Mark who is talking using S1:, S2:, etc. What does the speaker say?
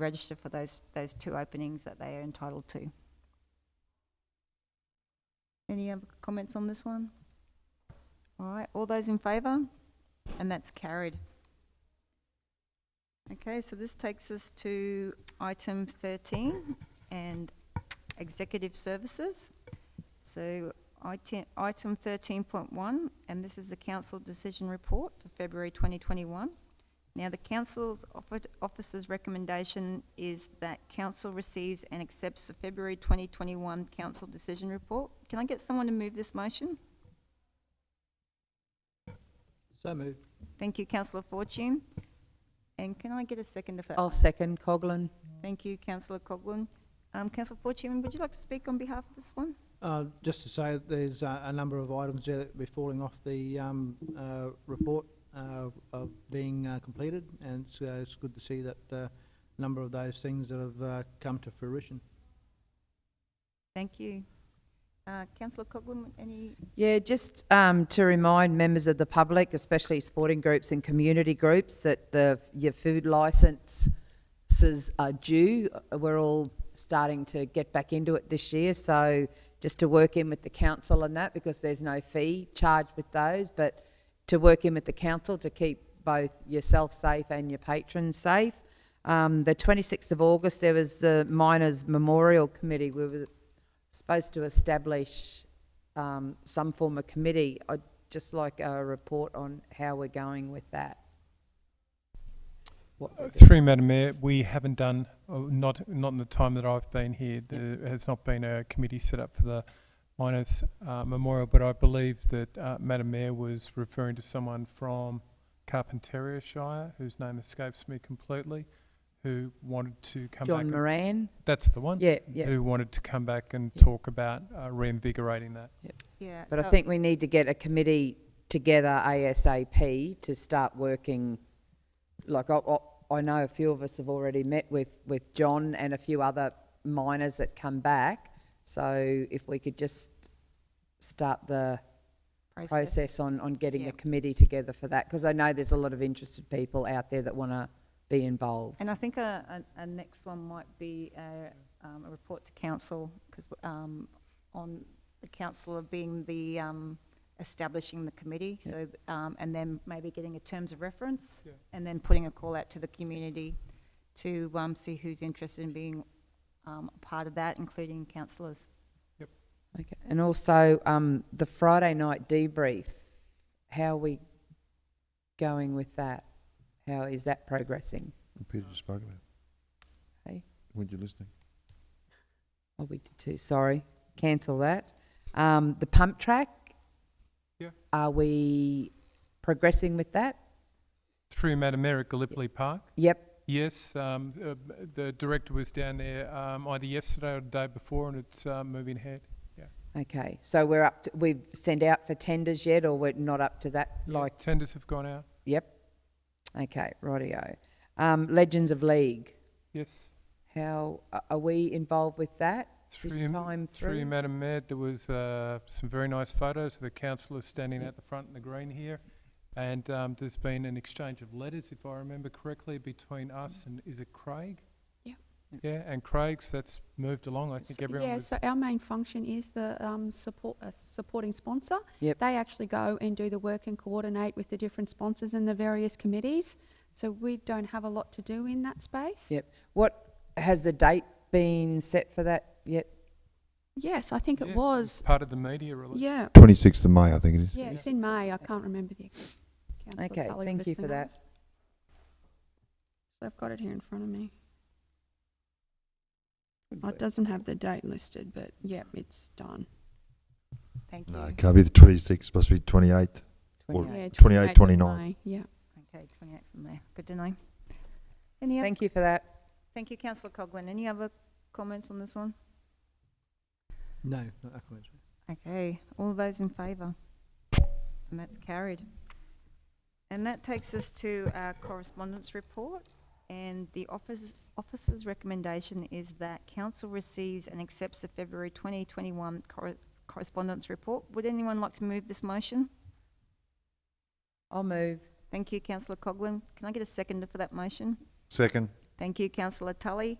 S1: register for those, those two openings that they are entitled to. Any other comments on this one? All right, all those in favour? And that's carried. Okay, so this takes us to item 13 and executive services. So item item 13.1, and this is the council decision report for February 2021. Now, the council's offered- officer's recommendation is that council receives and accepts the February 2021 council decision report. Can I get someone to move this motion?
S2: So moved.
S1: Thank you, councillor Fortune. And can I get a second of that?
S3: I'll second Coglan.
S1: Thank you, councillor Coghlan. Um, councillor Fortune, would you like to speak on behalf of this one?
S2: Uh, just to say, that there's uh, a, a number of items there that will be falling off the, um, uh, report, uh, of being, uh, completed, and it's, uh, it's good to see that, uh, a number of those things that have, uh, come to fruition.
S1: Thank you. Uh, councillor Coghlan, any,
S3: Yeah, just um, to remind members of the public, especially sporting groups and community groups, that the, your food licences are due. We're all starting to get back into it this year, so just to work in with the council on that, because there's no fee charged with those, but to work in with the council to keep both yourself safe and your patrons safe. Um, the 26th of August, there was the Miners Memorial Committee. We were supposed to establish um, some form of committee. I'd just like a report on how we're going with that. What we're doing.
S4: Through Madam Mayor, we haven't done, oh, not, not in the time that I've been here, there has not been a committee set up for the miners uh, memorial, but I believe that uh, Madam Mayor was referring to someone from Carpentaria Shire, whose name escapes me completely, who wanted to come back.
S3: John Moran?
S4: That's the one.
S3: Yeah, yeah.
S4: Who wanted to come back and
S3: Yeah.
S4: talk about uh, reinvigorating that.
S1: yeah.
S3: But I
S1: so-
S3: think we need to get a committee together ASAP to start working. Like, I, I- I know a few of us have already met with, with John and a few other miners that come back. So if we could just start the process on, on getting
S1: Yeah.
S3: a committee together for that, because I know there's a lot of interested people out there that want to be involved.
S1: And I think a, a, a next one might be a, um, a report to council, 'cause, um, on the council being the, um, establishing the committee, so, um, and then maybe getting a terms of reference,
S4: Yeah.
S1: and then putting a call out to the community to, um, see who's interested in being, um, a part of that, including councillors.
S3: Okay. And also, um, the Friday night debrief, how are we going with that? How is that progressing?
S5: Peter just spoke about.
S3: Hey.
S5: Weren't you listening?
S3: Oh, we did too, sorry, cancel that. Um, the pump track?
S4: Yeah.
S3: Are we progressing with that?
S4: Through Madam Mayor at Gallipoli Park,
S3: Yep,
S4: Yes, um, uh, b- the director was down there um, either yesterday or the day before, and it's uh, moving ahead.
S3: okay, so we're up, to we've sent out for tenders yet, or we're not up to that,
S4: Yeah,
S3: like,
S4: tenders have gone out.
S3: yep? Okay, rightio. Um, Legends of League,
S4: Yes,
S3: how, a- are we involved with that this
S4: Through-
S3: time
S4: through you,
S3: through?
S4: Madam Mayor, there was uh, some very nice photos of the councillors standing at the front in the green here, and um, there's been an exchange of letters, if I remember correctly, between
S6: Mm.
S4: us and is it Craig?
S6: Yep.
S4: Yeah, and Craig's that's moved along. I
S6: So-
S4: think everyone
S6: yeah,
S4: was
S6: so our main function is the um, support uh, supporting sponsor.
S3: Yep.
S6: They actually go and do the work and coordinate with the different sponsors and the various committees. So we don't have a lot to do in that space.
S3: Yep, what, has the date been set for that yet?
S6: Yes, I think
S4: Yeah,
S6: it
S4: it
S6: was.
S4: part of the media release.
S6: Yeah,
S5: Twenty-sixth of May, I think it is.
S6: yeah, it's in May. I can't remember the. ex- Councillor
S3: Okay,
S6: Tully
S3: thank
S6: was
S3: you
S6: the
S3: for that.
S6: notice. I've got it here in front of me. Oh, It doesn't have the date listed, but yep, it's done.
S1: Thank you.
S5: No, it can't be the twenty-sixth, must be twenty-eighth. Or-
S6: Yeah,
S3: 28th.
S5: 28th,
S6: 28th of
S5: 29th.
S6: May, Yeah.
S1: Okay, twenty-eight from there. Good to know. Any other,
S3: Thank you for that.
S1: thank you, councillor Coghlan. Any other comments on this one?
S2: No, not that comment.
S1: Okay, all those in favour? And that's carried. And that takes us to our correspondence report. And the office, officer's recommendation is that council receives and accepts the February 2021 corre- correspondence report. Would anyone like to move this motion?
S3: I'll move.
S1: Thank you, councillor Coghlan. Can I get a seconder for that motion?
S5: Second.
S1: Thank you, councillor Tully.